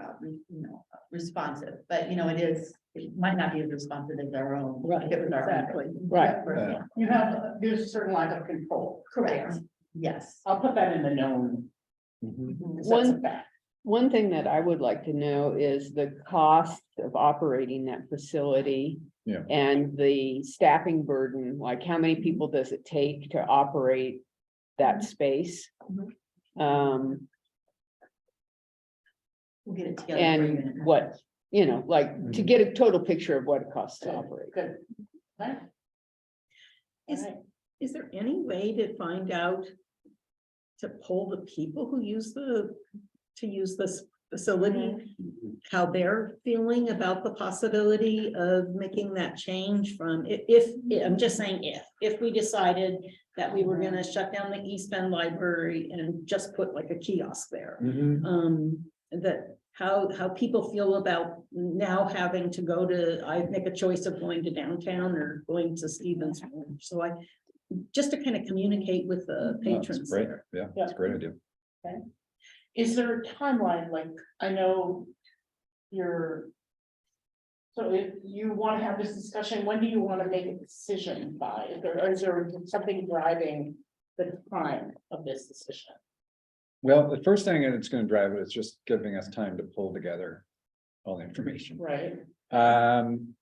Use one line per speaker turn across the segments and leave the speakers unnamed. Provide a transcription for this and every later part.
uh, re- you know, responsive, but you know, it is, it might not be as responsive as our own. if
Right,
it was our own.
exactly, right.
Yeah.
You have, there's a certain line of control.
Correct, yes.
I'll put that in the known.
Mm-hmm.
because that's a
Mm-hmm. One-
fact.
One thing that I would like to know is the cost of operating that facility.
Yeah.
And the staffing burden, like how many people does it take to operate that space?
Mhm.
Um,
We'll get it together. for you in a
and
minute.
what, you know, like
Mhm.
to get a total picture of what it costs to operate.
Good. Right.
Is,
Right.
is there any way to find out? To poll the people who use the, to use this facility? How they're feeling about the possibility of making that change from, i- if, I'm just saying if, if we decided. That we were gonna shut down the East Bend Library and just put like a kiosk there
Mhm.
um, that how, how people feel about now having to go to, I make a choice of going to downtown or going to Stevens. Point. So I, just to kind of communicate with
No,
the
it's
patrons
great.
there.
Yeah, it's a great idea.
Is there a timeline, like, I know you're. So if you want to have this discussion, when do you want to make a decision by, Is there- or is there something driving the time of this decision?
Well, the first thing that's gonna drive it is just giving us time to pull together all the information.
Right,
Um,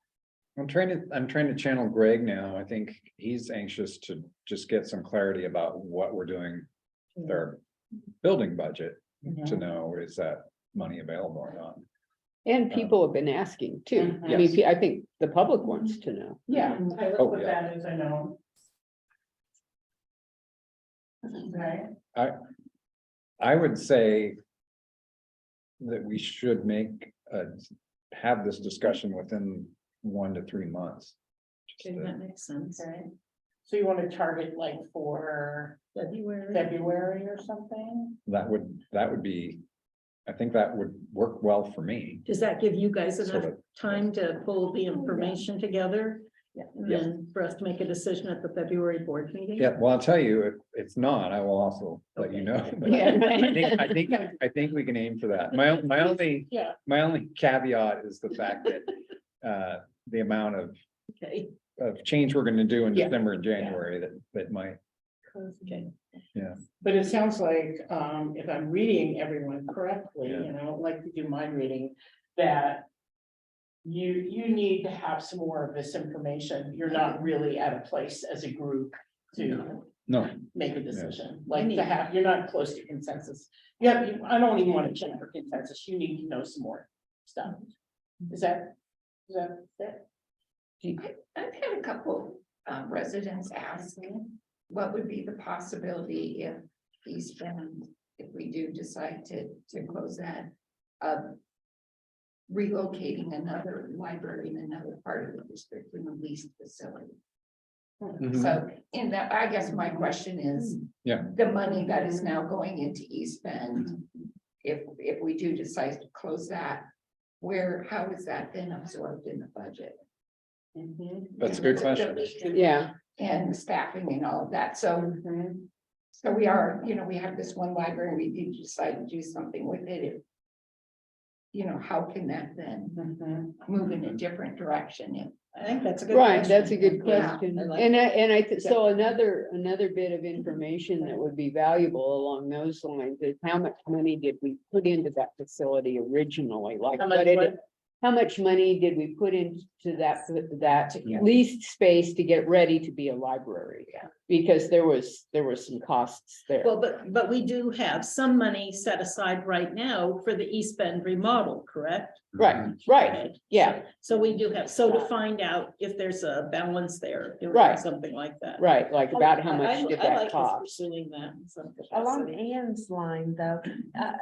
I'm trying to, I'm trying to channel Greg now. I think he's anxious to just get some clarity about what we're doing. with Our building budget to know is that money available or not.
And people have been asking too. I
Yes.
mean, I think the public wants to know.
yeah, I
Oh,
look with
yeah.
that as I know. Right,
I would say. That we should make, uh, have this discussion within one to three months. Just
Okay,
to-
that makes sense.
okay. So you want to target like for
February.
February or something?
That would, that would be, I think that would work well for me.
Does that give you guys
So
enough
that-
time to pull the information together?
Yeah.
And then for us to make a decision at the February board meeting?
Yeah, well, I'll tell you, if it's not, I will also let you know. But I think, I think, I think we can aim for that. My, my only,
Yeah.
my only caveat is the fact that, uh, the amount of,
Okay,
of change we're gonna do in
Yeah.
December and January that, that might,
okay.
But it sounds like, um, if I'm reading everyone correctly,
Yeah.
you know, like to do mind reading, that. You, you need to have some more of this information, you're not really at a place as a group to
no,
make a decision. Like
need-
to have, you're not close to consensus, yeah, you- I don't even want to check for consensus, you need to know some more stuff. Is that, is that, that,
I've had a couple um, residents ask me, what would be the possibility if East Bend, if we do decide to, to close that? of Relocating another library in another part of the district in the leased facility. So, in that, I guess my question is.
Mhm. Yeah.
The money that is now going into East Bend, if, if we do decide to close that, where, how is that then absorbed in the budget?
Mm-hmm.
that's a good question.
Yeah,
and staffing and all of that, so.
Mhm.
So we are, you know, we have this one library, we do decide to do something with it. it- You know, how can that then move in a different direction? if-
I think that's a good.
right, that's a
question.
good
Yeah, I
question.
like
And I, and I, thi- so another, another bit of information that would be valuable along those lines is how much money did we put into that facility originally? Like,
How much
what did
what?
it- how much money did we put into that, that
Yeah.
leased space to get ready to be a library? Yeah. Because there was, there were some costs there.
Well, but, but we do have some money set aside right now for the East Bend remodel, correct?
Right, right, yeah,
So we do have, so to find out if there's a balance there, if
Right.
something like that.
right, like about how much
I-
did
I like
that
us
cost?
Pursuing that. in some
Along
capacity.
Anne's line though, uh,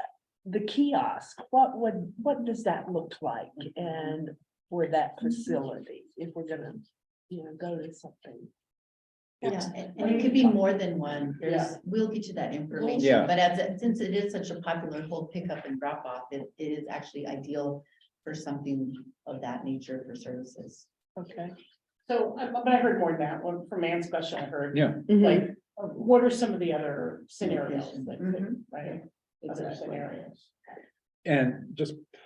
the kiosk, what would, what does that look like? And for that facility, if we're gonna, you know, go to something.
Yeah, and- and it could be more than one, there's, we'll get you that
Yeah.
information, but as, it- since it is such a popular whole pickup and drop off, it, it is actually ideal. For something of that nature for services.
Okay.
so, I- but I heard more than that, one from Anne's question, I heard.
Yeah.
Mhm.
Like, uh, what are some of the
Mm-hmm.
Mm-hmm.
other scenarios, that could-
Mhm.
right? Other
Exactly.
scenarios.
And just